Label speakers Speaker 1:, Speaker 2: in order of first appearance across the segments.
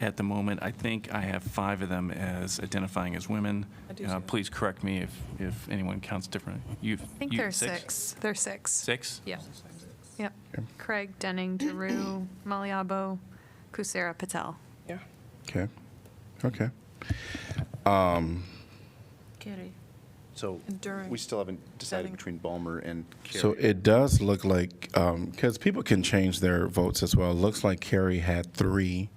Speaker 1: at the moment. I think I have five of them as identifying as women.
Speaker 2: I do
Speaker 1: Uh,
Speaker 2: too.
Speaker 1: Please correct me if, if anyone counts differently. I
Speaker 3: I think there's six. There's six.
Speaker 1: Six?
Speaker 3: Yep. Yep. Craig, Denning, Daru, Maliabo, Kusera, Patel.
Speaker 2: Yeah.
Speaker 4: Okay, okay.
Speaker 2: Carrie.
Speaker 5: So
Speaker 2: And during-
Speaker 5: we still haven't decided
Speaker 2: during-
Speaker 5: between Balmer and Carey.
Speaker 4: So it does look like, because people can change their votes as well. It looks like Carrie had three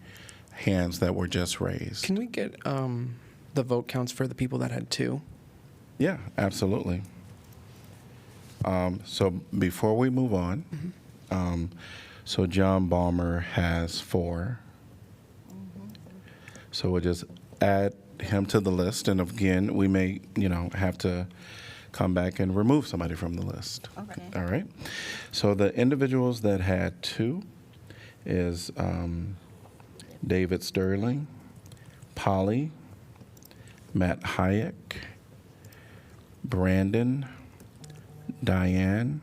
Speaker 4: hands that were just raised.
Speaker 6: Can we get um, the vote counts for the people that had two?
Speaker 4: Yeah, absolutely. Um, so before we move on, um, so John Balmer has four. So we'll just add him to the list, and again, we may, you know, have to come back and remove somebody from the list.
Speaker 7: Okay.
Speaker 4: All right. So the individuals that had two is um, David Sterling, Polly, Matt Hayek, Brandon, Diane.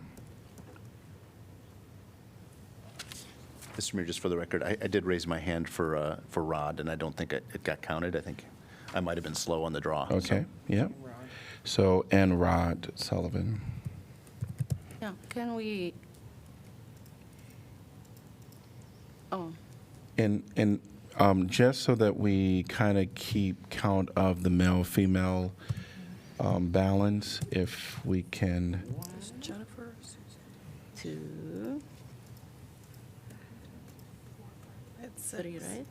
Speaker 5: Mr. Mayor, just for the record, I, I did raise my hand for, uh, for Rod, and I don't think it it got counted. I think I might have been slow on the draw. so-
Speaker 4: Okay, yep. So, and Rod Sullivan.
Speaker 7: Now, can we? Oh,
Speaker 4: And, and um, just so that we kind of keep count of the male-female um, balance, if we can,
Speaker 2: Jennifer, Susan.
Speaker 7: two. Three, right?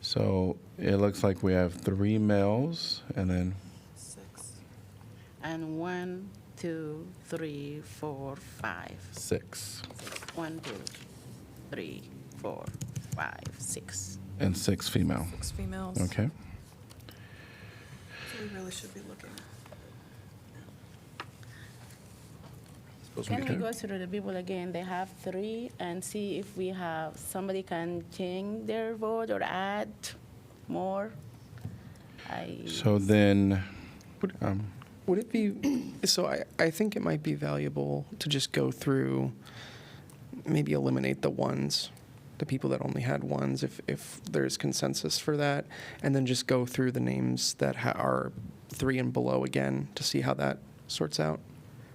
Speaker 4: so it looks like we have three males and then,
Speaker 2: Six.
Speaker 7: And one, two, three, four, five.
Speaker 4: Six.
Speaker 7: One, two, three, four, five, six.
Speaker 4: and six female.
Speaker 2: Six females.
Speaker 4: Okay?
Speaker 2: So we really should be looking.
Speaker 7: Can we go through the people again? They have three and see if we have, somebody can change their vote or add more? I.
Speaker 4: So then,
Speaker 6: Would-
Speaker 4: um,
Speaker 6: Would it be, so I, I think it might be valuable to just go through, maybe eliminate the ones, the people that only had ones, if, if there's consensus for that, and then just go through the names that ha- are three and below again to see how that sorts out,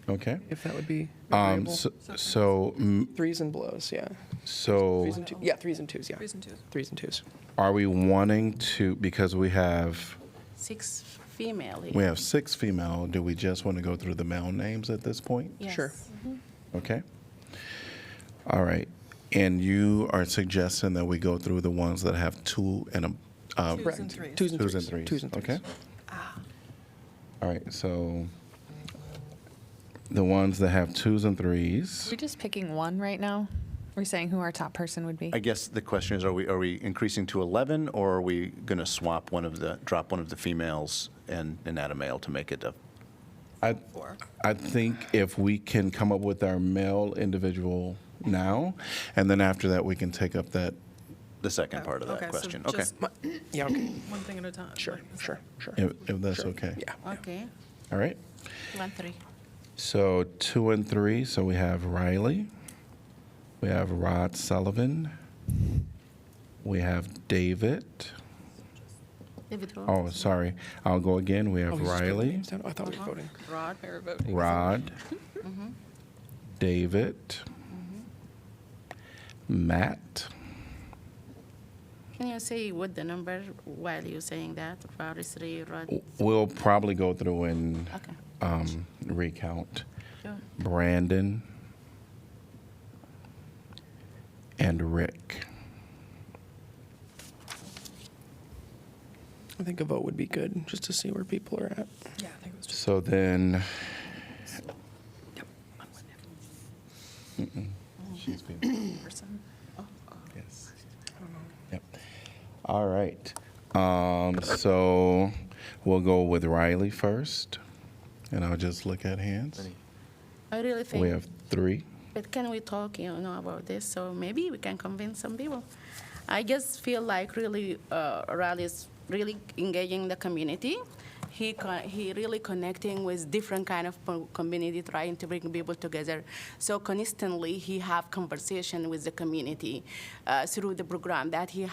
Speaker 4: okay.
Speaker 6: if that would be
Speaker 4: Um,
Speaker 6: agreeable.
Speaker 4: so, so, mm,
Speaker 6: Threes and belows, yeah.
Speaker 4: so.
Speaker 6: Threes and two, yeah, threes and twos, yeah.
Speaker 2: Threes and twos.
Speaker 6: Threes and twos.
Speaker 4: Are we wanting to, because we have,
Speaker 7: Six female here.
Speaker 4: we have six female, do we just want to go through the male names at this point?
Speaker 6: Sure.
Speaker 7: Yes.
Speaker 4: Okay. All right. And you are suggesting that we go through the ones that have two and a, uh,
Speaker 2: Twos and threes.
Speaker 6: Twos and
Speaker 4: twos
Speaker 6: threes.
Speaker 4: and threes?
Speaker 6: Twos and threes. Ah.
Speaker 4: Okay. All right, so the ones that have twos and threes,
Speaker 3: We're just picking one right now. We're saying who our top person would be.
Speaker 5: I guess the question is, are we, are we increasing to 11, or are we going to swap one of the, drop one of the females and, and add a male to make it a?
Speaker 4: I,
Speaker 2: Four.
Speaker 4: I think if we can come up with our male individual now, and then after that, we can take up that
Speaker 5: the second part of
Speaker 2: Oh, Okay,
Speaker 5: that
Speaker 2: so
Speaker 5: question? Okay.
Speaker 2: just
Speaker 6: Yeah, okay,
Speaker 2: One thing at a time.
Speaker 6: sure,
Speaker 2: like,
Speaker 6: sure, sure.
Speaker 4: If, if that's
Speaker 6: Sure.
Speaker 4: okay.
Speaker 6: Yeah.
Speaker 7: Okay,
Speaker 4: All right.
Speaker 7: one, three.
Speaker 4: So two and three. So we have Riley. We have Rod Sullivan. We have David.
Speaker 7: David Rowe.
Speaker 4: Oh, sorry. I'll go again. We
Speaker 6: Oh,
Speaker 4: have
Speaker 6: you just put the
Speaker 4: Riley,
Speaker 6: names down? I thought we were voting.
Speaker 7: Rod,
Speaker 4: Rod,
Speaker 6: Mm-hmm.
Speaker 4: David,
Speaker 6: Mm-hmm.
Speaker 4: Matt.
Speaker 7: can you say what the number while you're saying that? Rod is three, Rod,
Speaker 4: W- We'll probably go through and
Speaker 7: okay.
Speaker 4: um, recount.
Speaker 7: Sure.
Speaker 4: Brandon, and Rick.
Speaker 6: I think a vote would be good, just to see where people are at.
Speaker 2: Yeah, I think it was just.
Speaker 4: So then.
Speaker 2: Yep.
Speaker 4: She's
Speaker 2: one person.
Speaker 4: Yes. Yep. All right. Um, so we'll go with Riley first, and I'll just look at hands.
Speaker 7: I really
Speaker 4: We
Speaker 7: think,
Speaker 4: have three.
Speaker 7: but can we talk, you know, about this? So maybe we can convince some people. I just feel like really, uh, Rod is really engaging the community. he con- he really connecting with different kind of po- community, trying to bring people together. So constantly, he have conversation with the community uh, through the program that he